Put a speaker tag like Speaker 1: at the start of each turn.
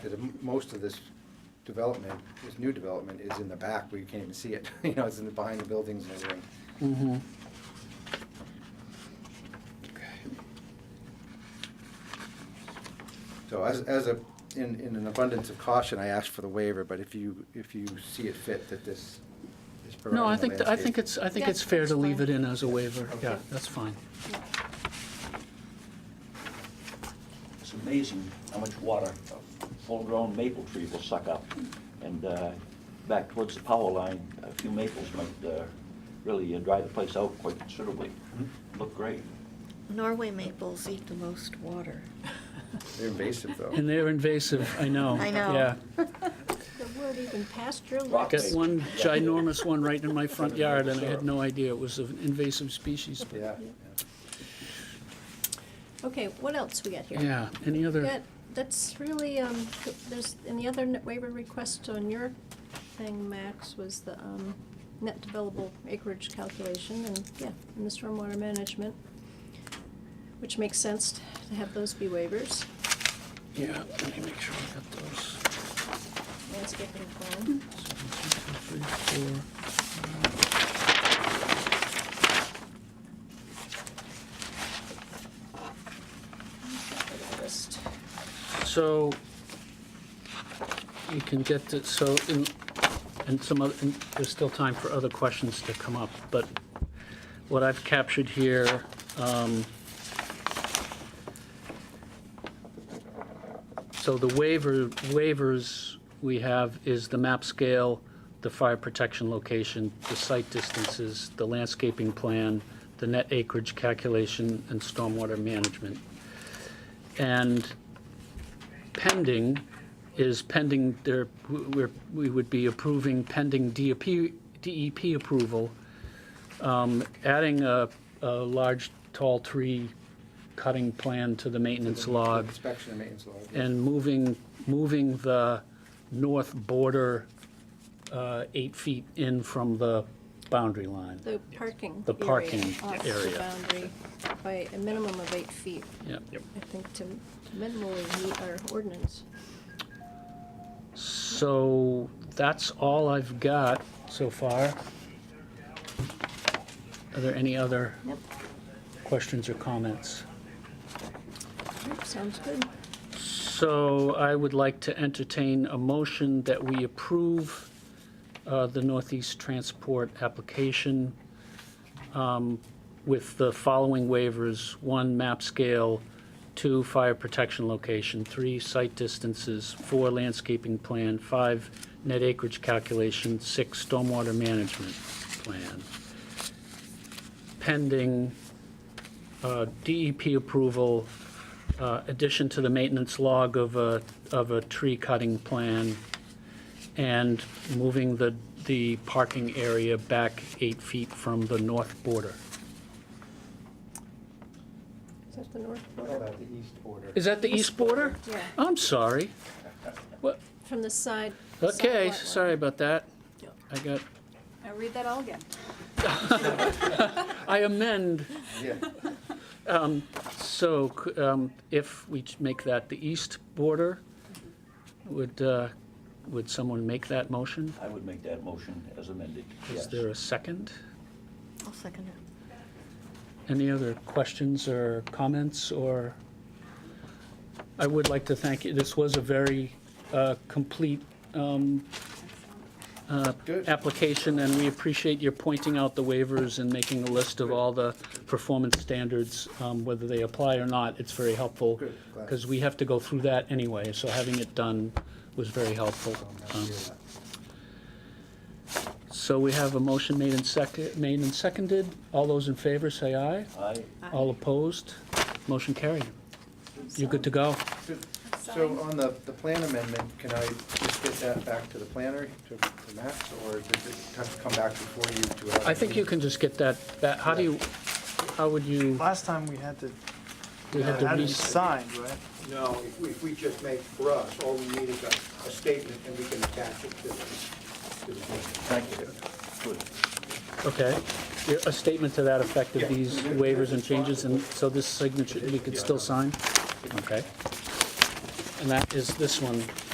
Speaker 1: that m- most of this development, this new development is in the back where you can't even see it. You know, it's in the, behind the buildings and everything.
Speaker 2: Mm-hmm.
Speaker 1: So as, as a, in, in an abundance of caution, I asked for the waiver, but if you, if you see it fit that this is providing
Speaker 2: No,
Speaker 1: a
Speaker 2: I
Speaker 1: landscape.
Speaker 2: think, I think it's, I think
Speaker 3: Yeah,
Speaker 2: it's fair to
Speaker 3: that's
Speaker 2: leave it
Speaker 3: fine.
Speaker 2: in as a waiver.
Speaker 1: Okay.
Speaker 2: Yeah, that's fine.
Speaker 4: It's amazing how much water a full-grown maple tree will suck up. And uh, back towards the power line, a few maples might uh, really uh, dry the place out quite considerably.
Speaker 2: Mm-hmm.
Speaker 4: Look great.
Speaker 3: Norway maples eat the most water.
Speaker 1: They're invasive though.
Speaker 2: And they're invasive, I know.
Speaker 3: I know.
Speaker 2: Yeah.
Speaker 5: The word even pasture
Speaker 4: Rock
Speaker 2: Got
Speaker 4: maple.
Speaker 2: one ginormous one right in my front yard, and I had no idea it was an invasive species.
Speaker 1: Yeah.
Speaker 5: Okay, what else we got here?
Speaker 2: Yeah, any
Speaker 5: We
Speaker 2: other,
Speaker 5: got- That's really, um, there's, and the other n- waiver request on your thing, Max, was the, um, net developable acreage calculation and, yeah, and the stormwater management, which makes sense to have those be waivers,
Speaker 2: yeah, let me make sure I got those.
Speaker 5: landscaping plan.
Speaker 2: So, one, two, three, four.
Speaker 5: List.
Speaker 2: So you can get to, so, in- and some other, and there's still time for other questions to come up, but what I've captured here, um, so the waiver, waivers we have is the map scale, the fire protection location, the site distances, the landscaping plan, the net acreage calculation, and stormwater management. And pending is pending, there, we're, we would be approving pending E DEP, DEP approval. Um, Adding a, a large tall tree cutting plan to the maintenance log
Speaker 1: Inspection and maintenance log. yeah.
Speaker 2: and moving, moving the north border uh, eight feet in from the boundary line.
Speaker 5: The parking
Speaker 2: The parking
Speaker 5: area off the
Speaker 2: area.
Speaker 5: boundary by a minimum of eight feet,
Speaker 2: Yep.
Speaker 5: I think, to minimally meet our ordinance.
Speaker 2: So that's all I've got so far. Are there any other
Speaker 5: Yep,
Speaker 2: questions or comments?
Speaker 5: yep, sounds good.
Speaker 2: So I would like to entertain a motion that we approve uh, the Northeast Transport application um, with the following waivers. One, map scale. Two, fire protection location. Three, site distances. Four, landscaping plan. Five, net acreage calculation. Six, stormwater management plan. Pending uh, DEP approval uh, addition to the maintenance log of a, of a tree cutting plan and moving the, the parking area back eight feet from the north border.
Speaker 5: Is that the north
Speaker 1: What
Speaker 5: border?
Speaker 1: about the east border?
Speaker 2: Is that the east border?
Speaker 5: Yeah,
Speaker 2: I'm sorry. What,
Speaker 5: from the side. side
Speaker 2: okay,
Speaker 5: lot line.
Speaker 2: sorry about that.
Speaker 5: Yeah.
Speaker 2: I got,
Speaker 6: Now read that all again.
Speaker 2: I amend,
Speaker 1: Yeah.
Speaker 2: so c- um, if we ch- make that the east border, would, uh, would someone make that motion?
Speaker 4: I would make that motion as amended, yes.
Speaker 2: Is there a second?
Speaker 3: I'll second it.
Speaker 2: Any other questions or comments, or? I would like to thank you, this was a very uh, complete um, uh,
Speaker 1: Good.
Speaker 2: application, and we appreciate your pointing out the waivers and making a list of all the performance standards, um, whether they apply or not, it's very helpful.
Speaker 1: Good, glad.
Speaker 2: Because we have to go through that anyway, so having it done was very helpful.
Speaker 1: Um,
Speaker 2: Um,
Speaker 1: yeah.
Speaker 2: So we have a motion made and seconded, made and seconded, all those in favor say aye.
Speaker 4: Aye.
Speaker 2: All opposed? Motion carried. You're good to go.
Speaker 1: So on the, the plan amendment, can I just get that back to the planner, to to Max, or does it have to come back before you to? have a
Speaker 2: I think you
Speaker 1: meeting?
Speaker 2: can just get that, that, how do you, how would you,
Speaker 7: Last time we had to,
Speaker 2: we had to
Speaker 7: had
Speaker 2: re-
Speaker 7: it signed, right?
Speaker 8: No, if we, if we just make, for us, all we need is a, a statement, and we can attach it to the, to the plan.
Speaker 4: Thank you. Good.
Speaker 2: okay. A statement to that effect of
Speaker 8: Yeah.
Speaker 2: these waivers and changes, and so this signature, we could still sign? Okay. And that is this one.